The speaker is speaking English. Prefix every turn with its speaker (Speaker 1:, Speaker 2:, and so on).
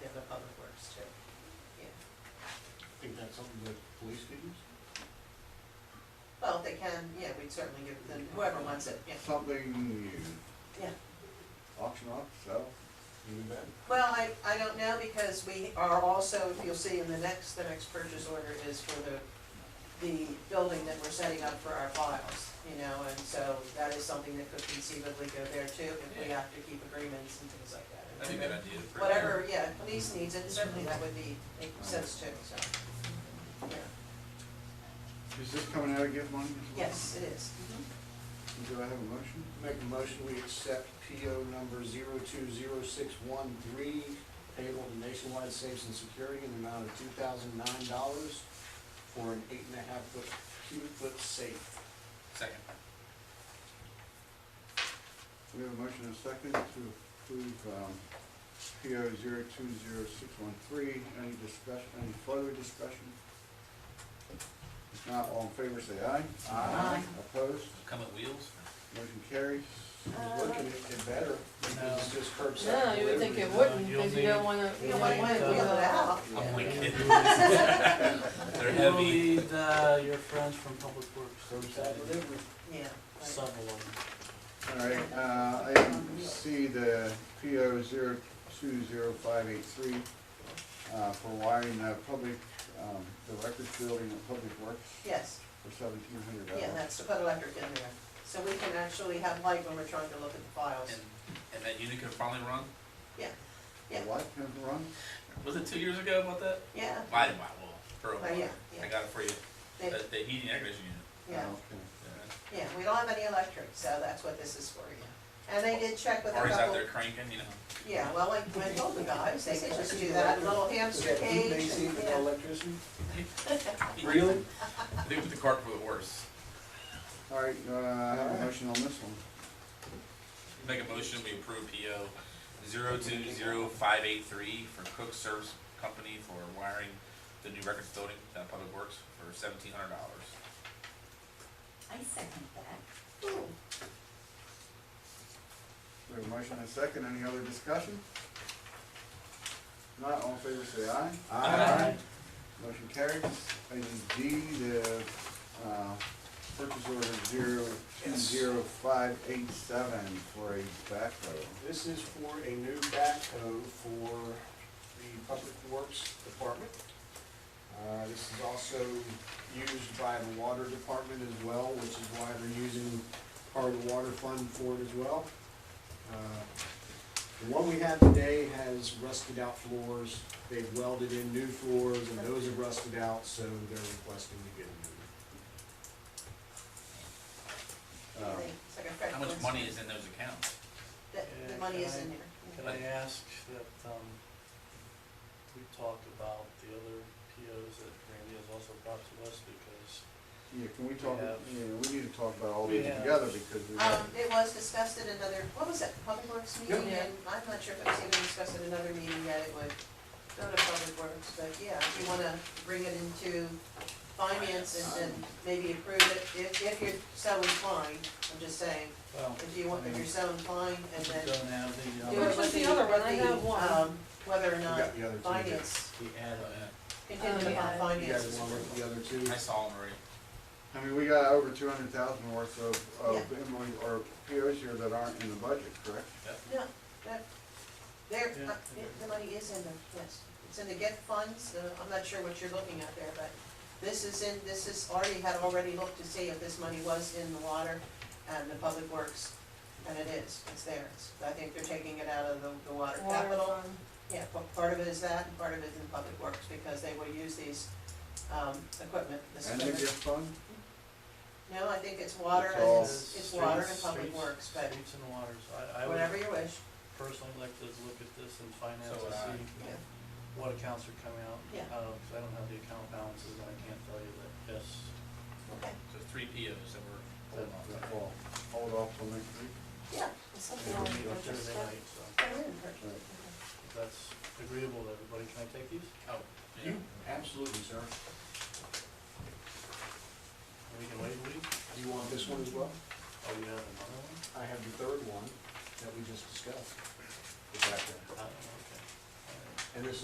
Speaker 1: students?
Speaker 2: Well, if they can, yeah, we'd certainly give them, whoever wants it, yeah.
Speaker 1: Something you.
Speaker 2: Yeah.
Speaker 1: Auction off, sell?
Speaker 3: You bet.
Speaker 2: Well, I, I don't know, because we are also, if you'll see in the next, the next purchase order is for the, the building that we're setting up for our files, you know, and so that is something that could conceivably go there too, if we have to keep agreements and things like that.
Speaker 4: That'd be a good idea. for-
Speaker 2: Whatever, yeah, police needs it, certainly that would be, make sense too, so, yeah.
Speaker 1: Is this coming out of gift money as well?
Speaker 2: Yes, it is. Mhm.
Speaker 1: Do I have a motion?
Speaker 3: Make a motion, we accept PO number zero two zero six one three, payable to Nationwide Safes and Security in the amount of two thousand nine dollars for an eight and a half foot, cubic foot safe.
Speaker 4: Second.
Speaker 1: We have a motion and a second to approve, um, PO zero two zero six one three. Any discussion, any further discussion? If not, all in favor, say aye.
Speaker 2: Aye.
Speaker 1: Opposed?
Speaker 4: Come at wheels?
Speaker 1: Motion carries.
Speaker 2: Uh,
Speaker 3: I was looking at it better, because it's just curbside.
Speaker 5: No, you would think it
Speaker 3: delivery.
Speaker 5: wouldn't, because you don't wanna,
Speaker 2: You don't wanna wheel it out.
Speaker 4: I'm only kidding. Oh They're
Speaker 6: You will
Speaker 4: heavy.
Speaker 6: need uh, your friends from Public Works.
Speaker 3: Curbside delivery.
Speaker 2: Yeah. right.
Speaker 6: Some of them.
Speaker 1: All right, uh, item C, the PO zero two zero five eight three, uh, for wiring the public, um, the records building at Public Works
Speaker 2: Yes,
Speaker 1: for seventeen hundred dollars.
Speaker 2: yeah, that's to put electric in there, so we can actually have light when we're trying to look at the files.
Speaker 4: And, and that unit can finally run?
Speaker 2: yeah.
Speaker 1: What, can it run?
Speaker 4: Was it two years ago about that?
Speaker 2: Yeah,
Speaker 4: Why, wow, well, for a
Speaker 2: Oh, yeah,
Speaker 4: while.
Speaker 2: yeah.
Speaker 4: I got it for you.
Speaker 2: they,
Speaker 4: The, the heating and air conditioning unit.
Speaker 2: yeah,
Speaker 1: Okay.
Speaker 4: Yeah.
Speaker 2: yeah, we don't have any electric, so that's what this is for, yeah. And they did check with a
Speaker 4: Artie's out
Speaker 2: couple,
Speaker 4: there cranking, you know.
Speaker 2: yeah, well, like, I told the guys, they could just do that, little
Speaker 3: Is
Speaker 2: hamster
Speaker 3: that heat
Speaker 2: cage,
Speaker 3: AC
Speaker 2: and,
Speaker 3: for
Speaker 2: yeah,
Speaker 3: electricity?
Speaker 4: He-
Speaker 3: Really?
Speaker 4: They put the cart before the horse.
Speaker 1: All right, uh, I have a motion on this one.
Speaker 4: Make a motion, we approve PO zero two zero five eight three for Cook Service Company for wiring the new records building at Public Works for seventeen hundred dollars.
Speaker 7: I second that.
Speaker 1: We have a motion and a second, any other discussion? If Not, all in favor, say aye.
Speaker 4: Aye.
Speaker 1: Motion carries. Item D, the, uh, purchase order zero two zero five eight seven for a backhoe.
Speaker 3: This is for a new backhoe for the Public Works Department. Uh, This is also used by the Water Department as well, which is why we're using part of the water fund for it as well. Uh, The one we have today has rusted out floors, they've welded in new floors, and those are rusted out, so they're requesting to get a new. one.
Speaker 1: Uh,
Speaker 2: they- it's like a fresh.
Speaker 4: How much
Speaker 2: one's-
Speaker 4: money is in those accounts?
Speaker 2: The, the money is in there.
Speaker 6: Can I ask that, um, we talk about the other POs that Randy has also brought to us, because
Speaker 1: Yeah, can we talk,
Speaker 6: We
Speaker 1: yeah,
Speaker 6: have-
Speaker 1: we need to talk about all
Speaker 6: We
Speaker 1: these
Speaker 6: have-
Speaker 1: together because we
Speaker 2: Um,
Speaker 1: have,
Speaker 2: it was discussed at another, what was it, Public Works meeting,
Speaker 5: Yeah.
Speaker 2: and I'm not sure if it was even discussed at another meeting yet, it would go to Public Works, but yeah, if you wanna bring it into finance and then maybe approve it, if, if you're so inclined, I'm just saying,
Speaker 6: well,
Speaker 2: if you want, if you're so inclined, and
Speaker 6: we
Speaker 2: then
Speaker 6: don't have the,
Speaker 2: do
Speaker 6: um,
Speaker 5: Which
Speaker 2: it
Speaker 5: was
Speaker 2: with
Speaker 5: the
Speaker 2: the,
Speaker 5: other one? I
Speaker 2: with
Speaker 5: have
Speaker 2: the,
Speaker 5: one.
Speaker 2: um, whether or
Speaker 3: We
Speaker 2: not
Speaker 3: got the other two. Dick.
Speaker 2: finance,
Speaker 6: the add-on.
Speaker 2: contingent
Speaker 5: Um,
Speaker 2: upon
Speaker 5: yeah.
Speaker 3: You guys
Speaker 2: finance.
Speaker 3: want to look at the other two?
Speaker 4: I saw them already.
Speaker 1: I mean, we got over two hundred thousand worth of, of invoice or POs here that aren't in the budget, correct?
Speaker 2: No, that, there,
Speaker 6: Yeah.
Speaker 2: uh, the money is in the, yes, it's in the get funds, uh, I'm not sure what you're looking at there, but this is in, this is already, had already looked to see if this money was in the water and the public works, and it is, it's there. It's- I think they're taking it out of the, the water capital.
Speaker 5: fund.
Speaker 2: Yeah, pa- part of it is that, and part of it is in public works, because they will use these, um, equipment, this
Speaker 1: And the gift
Speaker 2: equipment.
Speaker 1: fund?
Speaker 2: No, I think it's water,
Speaker 1: It's
Speaker 2: and
Speaker 1: all-
Speaker 2: it's, it's water and
Speaker 6: Streets-
Speaker 2: public
Speaker 6: streets-
Speaker 2: works, but
Speaker 6: Streets and waters, I, I
Speaker 2: whatever
Speaker 6: would
Speaker 2: you wish,
Speaker 6: personally like to look at this in
Speaker 4: So
Speaker 6: finance
Speaker 4: would
Speaker 6: to
Speaker 4: I.
Speaker 6: see
Speaker 2: yeah.
Speaker 6: what accounts are coming out.
Speaker 2: Yeah.
Speaker 6: Out of, 'cause I don't have the account balances, and I can't tell you that, yes,
Speaker 2: Okay,
Speaker 4: So three POs that were holding on.
Speaker 1: That will Hold off till next week.
Speaker 2: yeah.
Speaker 6: we will meet on Thursday night, so.
Speaker 2: Go ahead and purchase it.
Speaker 6: If that's agreeable to everybody, can I take these?
Speaker 4: Oh, yeah.
Speaker 3: You, absolutely, sir.
Speaker 6: And we can wait a week?
Speaker 3: Do you want this one as well?
Speaker 6: Oh, you have another one?
Speaker 3: I have the third one that we just discussed. The background.
Speaker 6: Uh, okay. All right.
Speaker 3: And this